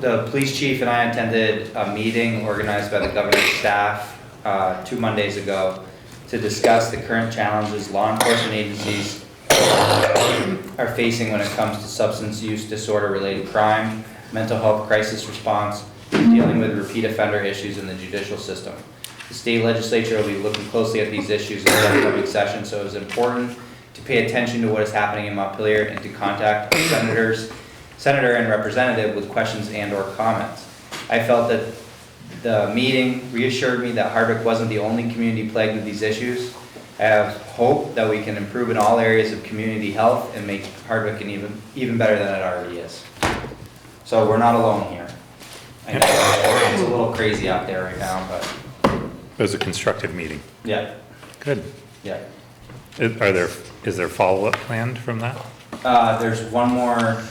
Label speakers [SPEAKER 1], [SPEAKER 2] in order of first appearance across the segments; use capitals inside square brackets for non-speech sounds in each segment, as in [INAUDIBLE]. [SPEAKER 1] the police chief and I attended a meeting organized by the governor's staff uh, two Mondays ago to discuss the current challenges law enforcement agencies are facing when it comes to substance use disorder-related crime, mental health crisis response, and dealing with repeat offender issues in the judicial system. The state legislature will be looking closely at these issues in the upcoming session, so it is important to pay attention to what is happening in Montpelier and to contact our senators, senator and representative with questions and/or comments. I felt that the meeting reassured me that Hardwick wasn't the only community plagued with these issues. I have hope that we can improve in all areas of community health and make Hardwick an even, even better than it already is. So we're not alone here. I know it's a little crazy out there right now, but,
[SPEAKER 2] It was a constructive meeting.
[SPEAKER 1] yeah,
[SPEAKER 2] Good.
[SPEAKER 1] yeah.
[SPEAKER 2] Is- Are there, is there follow-up planned from that?
[SPEAKER 1] Uh, there's one more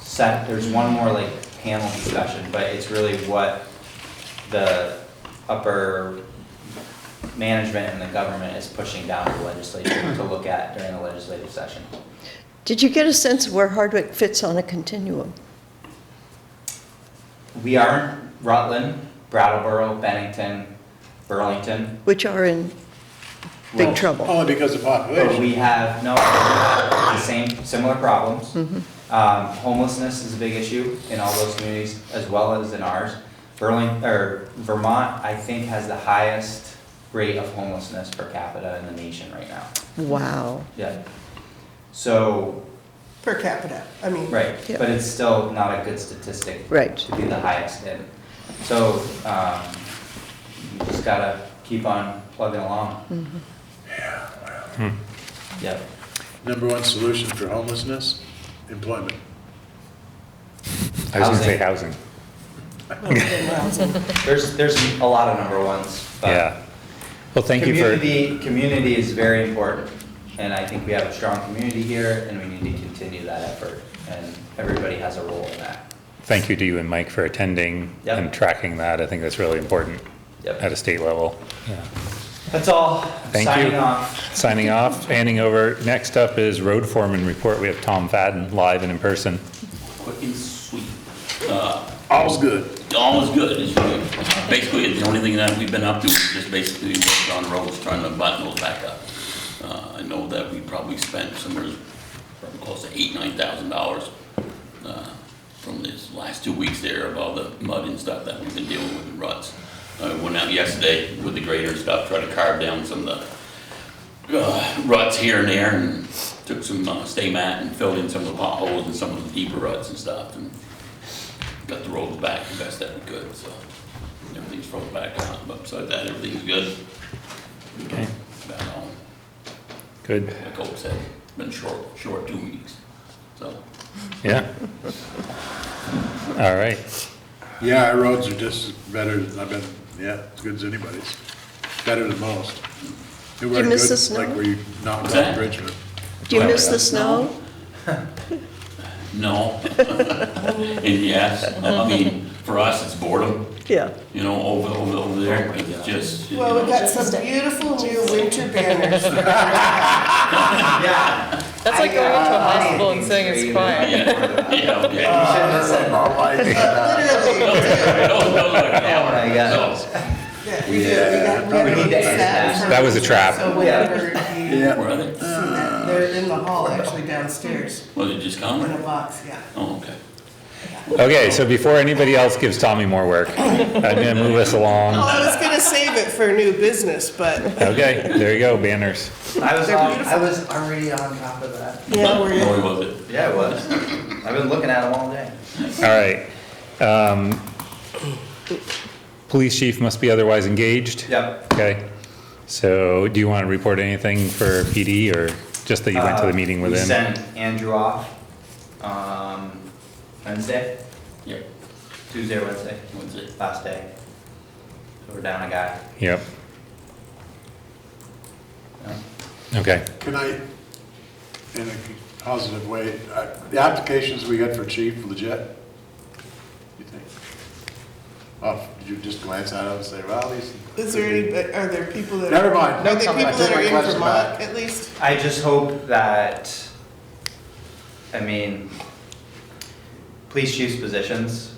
[SPEAKER 1] set, there's one more like panel discussion, but it's really what the upper management and the government is pushing down to the legislature to look at during the legislative session.
[SPEAKER 3] Did you get a sense of where Hardwick fits on a continuum?
[SPEAKER 1] We are Rutland, Brattleboro, Bennington, Burlington.
[SPEAKER 3] Which are in big
[SPEAKER 1] Well,
[SPEAKER 3] trouble.
[SPEAKER 4] Only because of
[SPEAKER 1] But
[SPEAKER 4] population.
[SPEAKER 1] we have, no, we have the same, similar problems.
[SPEAKER 3] Mm-hmm.
[SPEAKER 1] Um, homelessness is a big issue in all those communities as well as in ours. Burlington, or Vermont, I think, has the highest rate of homelessness per capita in the nation right now.
[SPEAKER 3] Wow.
[SPEAKER 1] Yeah. So,
[SPEAKER 5] per capita, I mean.
[SPEAKER 1] right,
[SPEAKER 3] Yeah.
[SPEAKER 1] but it's still not a good statistic.
[SPEAKER 3] Right.
[SPEAKER 1] To be the highest in. So, um, you just gotta keep on plugging along.
[SPEAKER 3] Mm-hmm.
[SPEAKER 1] Yeah. Yep.
[SPEAKER 4] Number one solution for homelessness, employment.
[SPEAKER 2] I was gonna say housing.
[SPEAKER 1] There's, there's a lot of number ones, but.
[SPEAKER 2] Yeah. Well, thank you for,
[SPEAKER 1] Community, community is very important, and I think we have a strong community here, and we need to continue that effort, and everybody has a role in that.
[SPEAKER 2] thank you to you and Mike for attending
[SPEAKER 1] Yep.
[SPEAKER 2] and tracking that. I think that's really important
[SPEAKER 1] Yep.
[SPEAKER 2] at a state level.
[SPEAKER 1] That's all,
[SPEAKER 2] Thank
[SPEAKER 1] signing
[SPEAKER 2] you.
[SPEAKER 1] off.
[SPEAKER 2] Signing off, handing over. Next up is road foreman report. We have Tom Fadden live and in person.
[SPEAKER 6] Quick and sweet. Uh,
[SPEAKER 4] All's good.
[SPEAKER 6] All is good, it's good. Basically, the only thing that we've been up to is just basically worked on roads, trying to button those back up. Uh, I know that we probably spent somewhere probably close to eight, nine thousand dollars uh, from this last two weeks there of all the mud and stuff that we've been dealing with, the ruts. I went out yesterday with the grader and stuff, tried to carve down some of the uh, ruts here and there, and took some uh, stay mat and filled in some of the potholes and some of the deeper ruts and stuff, and got the roads back the best that we could, so everything's rolled back on, but besides that, everything's good.
[SPEAKER 2] Okay.
[SPEAKER 6] About all,
[SPEAKER 2] Good.
[SPEAKER 6] like Hope said, it's been short, short two weeks, so.
[SPEAKER 2] Yeah. All right.
[SPEAKER 4] Yeah, our roads are just better than I've been, yeah, as good as anybody's. Better than most. They weren't
[SPEAKER 3] miss
[SPEAKER 4] good,
[SPEAKER 3] the snow?
[SPEAKER 4] Like where you knocked
[SPEAKER 6] What's
[SPEAKER 4] down
[SPEAKER 6] that?
[SPEAKER 4] Bridgman.
[SPEAKER 3] Do you miss the snow?
[SPEAKER 6] No. And yes, I mean, for us, it's boredom,
[SPEAKER 3] Yeah.
[SPEAKER 6] you know, over, over, over there, it's just, you
[SPEAKER 5] Well, we
[SPEAKER 6] know,
[SPEAKER 5] got some beautiful new winter banners.
[SPEAKER 1] Yeah. uh,
[SPEAKER 7] That's like going into a hospital and saying it's
[SPEAKER 1] [LAUGHS]
[SPEAKER 7] fine.
[SPEAKER 1] Yeah.
[SPEAKER 5] [LAUGHS]
[SPEAKER 6] yeah, okay.
[SPEAKER 1] um,
[SPEAKER 5] Literally.
[SPEAKER 6] Those- those are-
[SPEAKER 1] Oh my God.
[SPEAKER 6] So,
[SPEAKER 5] Yeah, we did. We got- we had
[SPEAKER 4] We need to
[SPEAKER 5] a
[SPEAKER 1] end
[SPEAKER 5] set.
[SPEAKER 1] that.
[SPEAKER 2] That was a trap.
[SPEAKER 5] So whenever you see
[SPEAKER 4] Yeah.
[SPEAKER 6] Where are they?
[SPEAKER 5] that, they're in the hall, actually downstairs,
[SPEAKER 6] Well, they just
[SPEAKER 5] in a
[SPEAKER 6] come?
[SPEAKER 5] box, yeah.
[SPEAKER 6] Oh, okay.
[SPEAKER 2] Okay, so before anybody else gives Tommy more work, I'm gonna move us
[SPEAKER 5] Well,
[SPEAKER 2] along.
[SPEAKER 5] I was gonna save it for new business, but.
[SPEAKER 2] Okay, there you go, banners.
[SPEAKER 1] I was
[SPEAKER 5] They're
[SPEAKER 1] on, I
[SPEAKER 5] beautiful.
[SPEAKER 1] was already on top of that.
[SPEAKER 5] Yeah, we're
[SPEAKER 6] Or
[SPEAKER 5] in.
[SPEAKER 6] was it?
[SPEAKER 1] Yeah, I was. I've been looking at them all day.
[SPEAKER 2] All right. Um, Police chief must be otherwise engaged?
[SPEAKER 1] Yep.
[SPEAKER 2] Okay. So do you want to report anything for PD or just that you went to the
[SPEAKER 1] Uh,
[SPEAKER 2] meeting with
[SPEAKER 1] We
[SPEAKER 2] him?
[SPEAKER 1] sent Andrew off, um, Wednesday,
[SPEAKER 6] Yeah,
[SPEAKER 1] Tuesday or Wednesday,
[SPEAKER 6] was it?
[SPEAKER 1] last day. So we're down a guy.
[SPEAKER 2] Yep.
[SPEAKER 1] Yeah.
[SPEAKER 2] Okay.
[SPEAKER 4] Can I, in a positive way, uh, the applications we got for chief legit? You think? Oh, did you just glance at them and say, well, these?
[SPEAKER 5] Is there any, are there people that?
[SPEAKER 4] Never mind.
[SPEAKER 5] Are there people
[SPEAKER 4] I take
[SPEAKER 5] that
[SPEAKER 4] my
[SPEAKER 5] are in
[SPEAKER 4] question
[SPEAKER 5] Vermont,
[SPEAKER 4] back.
[SPEAKER 5] at least?
[SPEAKER 1] I just hope that, I mean, police chief's positions